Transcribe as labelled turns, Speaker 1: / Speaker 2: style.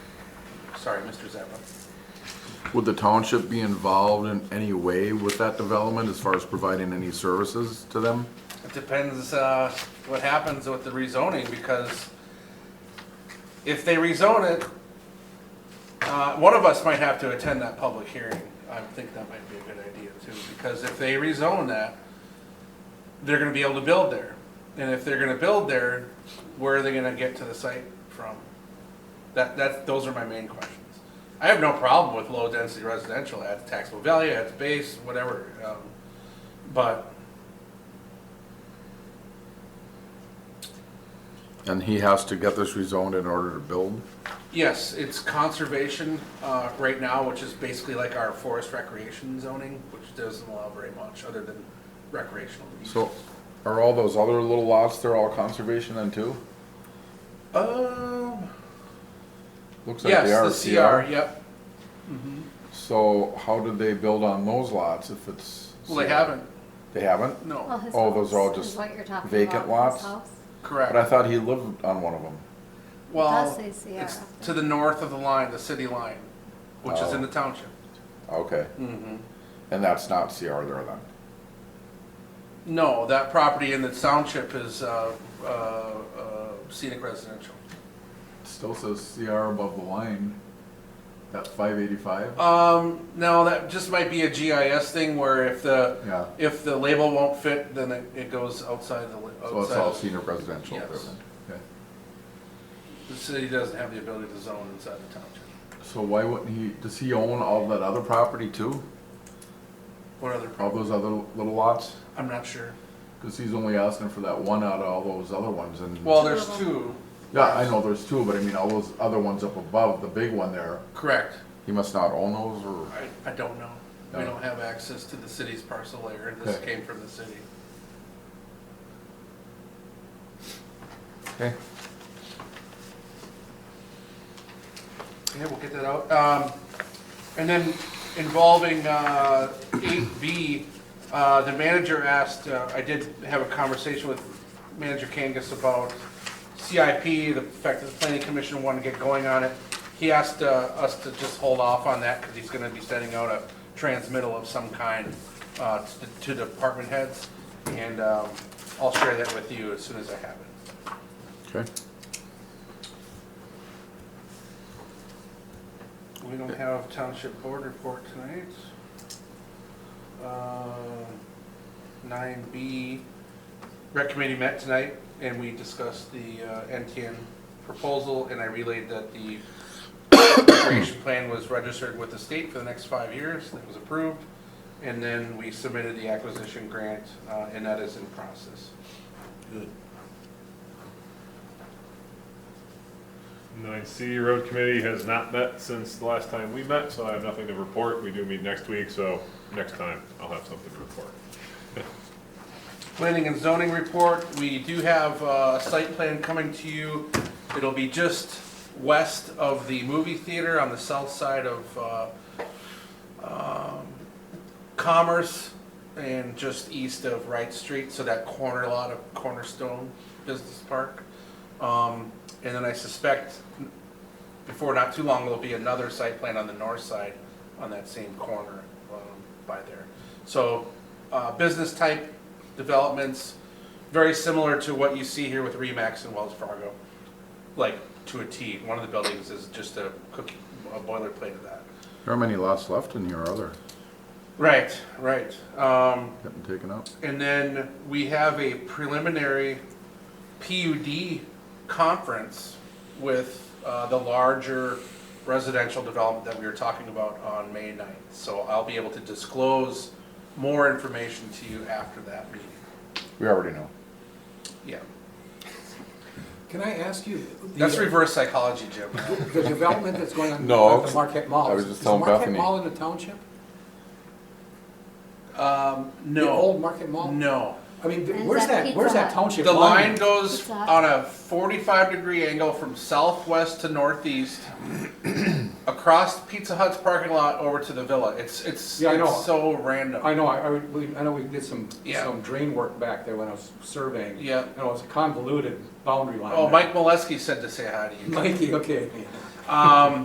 Speaker 1: Sorry, Mr. Zappa.
Speaker 2: Would the township be involved in any way with that development as far as providing any services to them?
Speaker 1: It depends uh, what happens with the rezoning, because if they rezone it, uh, one of us might have to attend that public hearing. I think that might be a good idea too, because if they rezone that, they're gonna be able to build there. And if they're gonna build there, where are they gonna get to the site from? That, that, those are my main questions. I have no problem with low-density residential, adds taxable value, adds base, whatever. um, But
Speaker 2: And he has to get this rezoned in order to build?
Speaker 1: Yes, it's conservation uh, right now, which is basically like our forest recreation zoning, which doesn't allow very much other than recreational use.
Speaker 2: So are all those other little lots, they're all conservation then too?
Speaker 1: Um,
Speaker 2: Looks like they are
Speaker 1: yes, the CR, yep.
Speaker 2: So how did they build on those lots if it's?
Speaker 1: Well, they
Speaker 2: CR?
Speaker 1: haven't,
Speaker 2: They haven't?
Speaker 3: Well,
Speaker 1: no,
Speaker 3: his
Speaker 2: Oh, those
Speaker 3: house
Speaker 2: are all
Speaker 3: is
Speaker 2: just
Speaker 3: what you're talking
Speaker 2: vacant
Speaker 3: about,
Speaker 2: lots?
Speaker 3: his house.
Speaker 2: But I
Speaker 1: correct.
Speaker 2: thought he lived on one of them.
Speaker 1: Well,
Speaker 3: It does say CR
Speaker 1: it's
Speaker 3: up there.
Speaker 1: to the north of the line, the city line, which is in
Speaker 2: Oh.
Speaker 1: the township.
Speaker 2: Okay,
Speaker 1: Mm-hmm.
Speaker 2: and that's not CR there then?
Speaker 1: No, that property in the township is uh, uh, uh, scenic residential.
Speaker 2: Still says CR above the line. That's five eighty-five?
Speaker 1: Um, no, that just might be a GIS thing where if the,
Speaker 2: Yeah.
Speaker 1: if the label won't fit, then it, it goes outside the, li-
Speaker 2: So it's all
Speaker 1: outside.
Speaker 2: senior residential there
Speaker 1: Yes.
Speaker 2: then? Okay.
Speaker 1: The city doesn't have the ability to zone inside the township.
Speaker 2: So why wouldn't he, does he own all that other property too?
Speaker 1: What other problem?
Speaker 2: All those other little lots?
Speaker 1: I'm not sure.
Speaker 2: Cause he's only asking for that one out of all those other ones and.
Speaker 1: Well, there's
Speaker 3: Two of
Speaker 1: two,
Speaker 2: Yeah, I know there's two, but I mean, all those other ones up above, the big one there,
Speaker 1: correct.
Speaker 2: he must not own those or?
Speaker 1: I, I don't know. We
Speaker 2: No.
Speaker 1: don't have access to the city's parcel layer. This
Speaker 2: Okay.
Speaker 1: came from the city.
Speaker 2: Okay.
Speaker 1: Yeah, we'll get that out. Um, and then involving, uh, eight B, uh, the manager asked, uh, I did have a conversation with Manager Kangas about CIP, the fact that the planning commission wanted to get going on it. He asked, uh, us to just hold off on that because he's gonna be sending out a transmittal of some kind, uh, to, to department heads. And, um, I'll share that with you as soon as I have it.
Speaker 2: Okay.
Speaker 1: We don't have township board report tonight. Uh, Nine B, rec committee met tonight and we discussed the uh, NTN proposal and I relayed that the recreation plan was registered with the state for the next five years, that was approved. And then we submitted the acquisition grant uh, and that is in process.
Speaker 4: Good.
Speaker 5: Nine C Road Committee has not met since the last time we met, so I have nothing to report. We do meet next week, so next time I'll have something to report.
Speaker 1: Planning and zoning report, we do have uh, a site plan coming to you. It'll be just west of the movie theater on the south side of uh, um, Commerce and just east of Wright Street, so that corner lot of Cornerstone Business Park. Um, And then I suspect before not too long, there'll be another site plan on the north side on that same corner um, by there. So uh, business type developments, very similar to what you see here with Remax and Wells Fargo, like to a T. One of the buildings is just a cookie, a boilerplate of that.
Speaker 2: How many lots left in here are there
Speaker 1: Right, right. Um,
Speaker 2: getting taken out?
Speaker 1: And then we have a preliminary PUD conference with uh, the larger residential development that we were talking about on May 9th. So I'll be able to disclose more information to you after that meeting.
Speaker 2: We already know.
Speaker 1: Yeah,
Speaker 4: Can I ask you? the- uh,
Speaker 1: that's reverse psychology, Jim.
Speaker 4: The development that's going on
Speaker 2: No,
Speaker 4: at the Marquette Mall.
Speaker 2: I was just telling
Speaker 4: Is the
Speaker 2: Bethany.
Speaker 4: Marquette Mall in the township?
Speaker 1: Um,
Speaker 4: The old
Speaker 1: No,
Speaker 4: Market Mall?
Speaker 1: no.
Speaker 4: I mean, th-
Speaker 3: And is
Speaker 4: where's
Speaker 3: that
Speaker 4: that, where's
Speaker 3: Pizza
Speaker 4: that
Speaker 3: Hut?
Speaker 4: township
Speaker 1: The line
Speaker 4: line?
Speaker 1: goes
Speaker 3: What's that?
Speaker 1: on a 45 degree angle from southwest to northeast across Pizza Hut's parking lot over to the villa. It's it's,
Speaker 4: Yeah, I know.
Speaker 1: it's so random.
Speaker 4: I know, I, I would- we- I know we did some,
Speaker 1: Yeah.
Speaker 4: some drain work back there when I was surveying.
Speaker 1: Yeah.
Speaker 4: And it was a convoluted boundary line.
Speaker 1: oh,
Speaker 4: there.
Speaker 1: Mike Molesky said to say hi to you.
Speaker 4: Mikey, okay.
Speaker 1: Um,